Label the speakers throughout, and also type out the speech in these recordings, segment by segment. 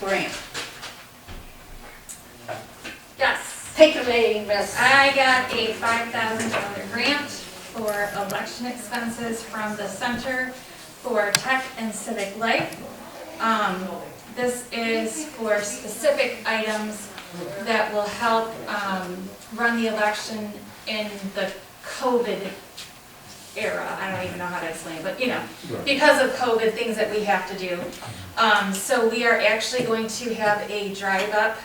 Speaker 1: grant.
Speaker 2: Yes,
Speaker 1: Take it away, Miss.
Speaker 2: I got a five thousand dollar grant for election expenses from the Center for Tech and Civic Life. Um, this is for specific items that will help, um, run the election in the COVID era. I don't even know how to explain, it, but you know, because of COVID, things that we have to do. Um, so we are actually going to have a drive-up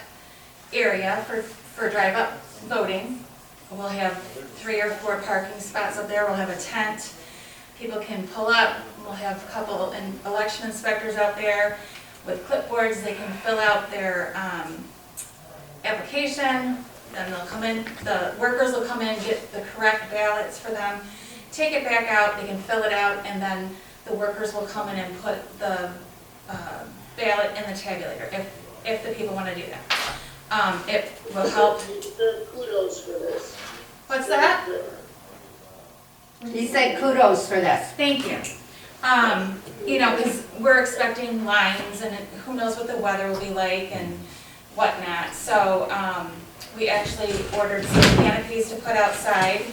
Speaker 2: area for, for drive-up voting. We'll have three or four parking spots up there, we'll have a tent, people can pull up, we'll have a couple in- election inspectors out there with clipboards, they can fill out their, um, application, then they'll come in, the workers will come in, get the correct ballots for them, take it back out, they can fill it out, and then the workers will come in and put the uh, ballot in the tabulator, if, if the people want to do that. Um, It will help,
Speaker 3: Kudos for this.
Speaker 2: what's that?
Speaker 1: He said kudos for this.
Speaker 2: Thank you. Um, You know, because we're expecting lines, and who knows what the weather will be like and whatnot. So um, we actually ordered some canopies to put outside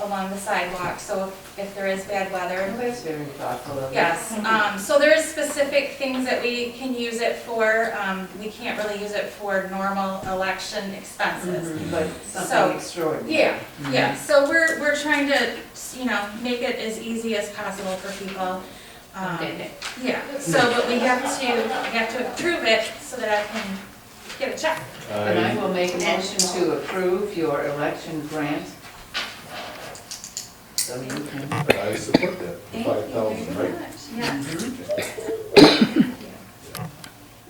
Speaker 2: along the sidewalk, so if- if there is bad weather,
Speaker 4: That's very thoughtful of you.
Speaker 2: Yes, um, so there is specific things that we can use it for, um, we can't really use it for normal election expenses.
Speaker 4: But
Speaker 2: So-
Speaker 4: something extraordinary.
Speaker 2: Yeah, yeah, so we're, we're trying to, you know, make it as easy as possible for people. Um, Yeah, so, but we have to, we have to approve it so that I can get a check.
Speaker 4: And I
Speaker 5: I,
Speaker 4: will make a motion to approve your election grant. So you can,
Speaker 5: I support that,
Speaker 2: Thank
Speaker 5: five
Speaker 2: you
Speaker 5: thousand,
Speaker 2: very
Speaker 5: right?
Speaker 2: much. Yes,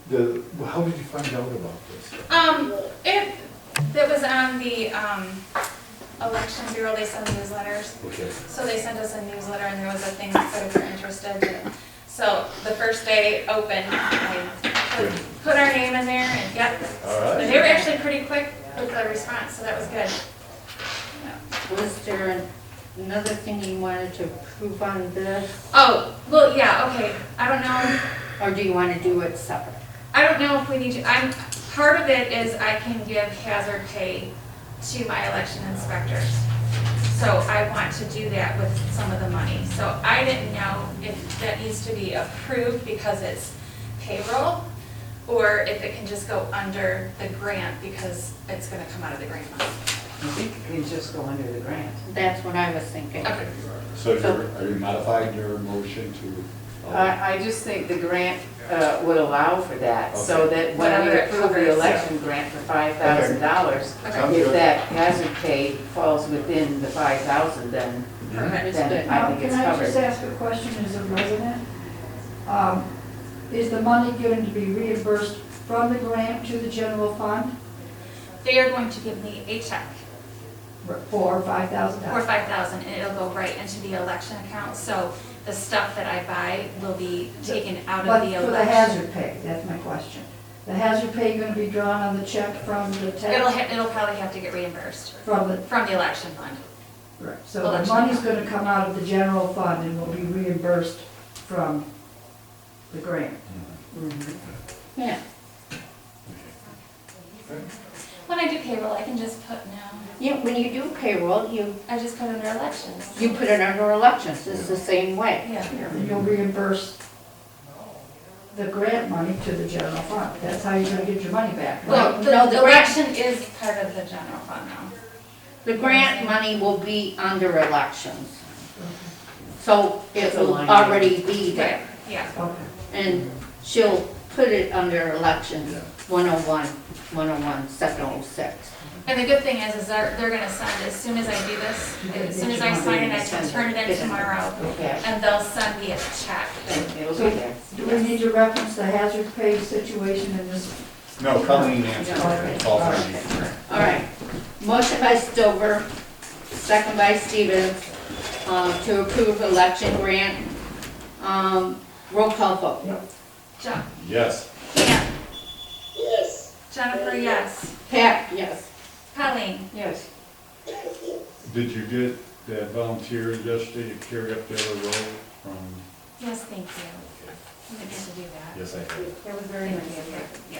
Speaker 5: The, well, how did you find out about this?
Speaker 2: um, it, that was on the, um, election bureau, they send newsletters.
Speaker 5: Okay.
Speaker 2: So they sent us a newsletter and there was a thing that said if you're interested. So the first day open, I put- put our name in there and yep.
Speaker 5: All right.
Speaker 2: And they were actually pretty quick with the response, so that was good.
Speaker 1: Was there another thing you wanted to prove on this,
Speaker 2: Oh, well, yeah, okay. I don't know.
Speaker 1: or do you want to do it separate?
Speaker 2: I don't know if we need to, I'm, part of it is I can give hazard pay to my election inspectors. So I want to do that with some of the money. So I didn't know if that needs to be approved because it's payroll, or if it can just go under the grant because it's gonna come out of the grant money.
Speaker 4: I think you can just go under the grant.
Speaker 1: That's what I was thinking.
Speaker 2: Okay,
Speaker 5: So you're, are you modifying your motion to? uh,
Speaker 4: I, I just think the grant uh, would allow for that, so that when
Speaker 2: Whatever
Speaker 4: we
Speaker 2: it
Speaker 4: approve
Speaker 2: covers.
Speaker 4: the election grant for five thousand dollars,
Speaker 5: Sounds
Speaker 4: if
Speaker 5: good.
Speaker 4: that hazard pay falls within the five thousand, then,
Speaker 2: perfect.
Speaker 4: then I
Speaker 6: Now,
Speaker 4: think
Speaker 6: can
Speaker 4: it's
Speaker 6: I just
Speaker 4: covered.
Speaker 6: ask a question as a resident? Um, Is the money going to be reimbursed from the grant to the general fund
Speaker 2: They are going to give me a check
Speaker 6: for five thousand
Speaker 2: for
Speaker 6: dollars?
Speaker 2: five thousand and it'll go right into the election account. So the stuff that I buy will be taken out of
Speaker 6: But
Speaker 2: the election.
Speaker 6: for the hazard pay, that's my question. The hazard pay going to be drawn on the check from the
Speaker 2: It'll,
Speaker 6: tax,
Speaker 2: ha- it'll probably have to get reimbursed
Speaker 6: from the,
Speaker 2: from the election fund.
Speaker 6: so the
Speaker 2: Election.
Speaker 6: money's going to come out of the general fund and will be reimbursed from the grant.
Speaker 1: Yeah.
Speaker 2: When I do payroll, I can just put no,
Speaker 1: Yeah, when you do payroll, you,
Speaker 2: I just put under elections.
Speaker 1: you put it under elections, it's the same way.
Speaker 2: Yeah,
Speaker 6: And you'll reimburse the grant money to the general fund. That's how you're going to get your money back. right?
Speaker 2: well, the
Speaker 1: No, the
Speaker 2: the
Speaker 1: grant-
Speaker 2: election is part of the general fund now.
Speaker 1: The grant money will be under elections. So it
Speaker 4: It's a
Speaker 1: will
Speaker 4: line item.
Speaker 1: already be there,
Speaker 2: Yeah,
Speaker 6: Okay.
Speaker 1: and she'll put it under elections,
Speaker 5: Yeah.
Speaker 1: 101, 101, 706.
Speaker 2: and the good thing is, is they're, they're gonna send, as soon as I do this, as soon as I sign it, I can turn it in tomorrow,
Speaker 4: Okay,
Speaker 2: and they'll send me a check.
Speaker 4: then it'll be there.
Speaker 6: Do we need to reference the hazard pay situation in this?
Speaker 5: No, Colleen answered it. All for you.
Speaker 1: All right, motion by Stover, second by Stevens, uh, to approve election grant. Um, Roll call vote.
Speaker 2: Jo-
Speaker 5: Yes.
Speaker 2: Pam,
Speaker 3: Yes,
Speaker 2: Jennifer, yes.
Speaker 1: Pat, yes.
Speaker 2: Colleen,
Speaker 4: Yes.
Speaker 5: Did you get that volunteer yesterday to carry up the other road from?
Speaker 2: yes, thank you. I didn't get to do that.
Speaker 5: Yes, I did.
Speaker 2: That was very nice of you.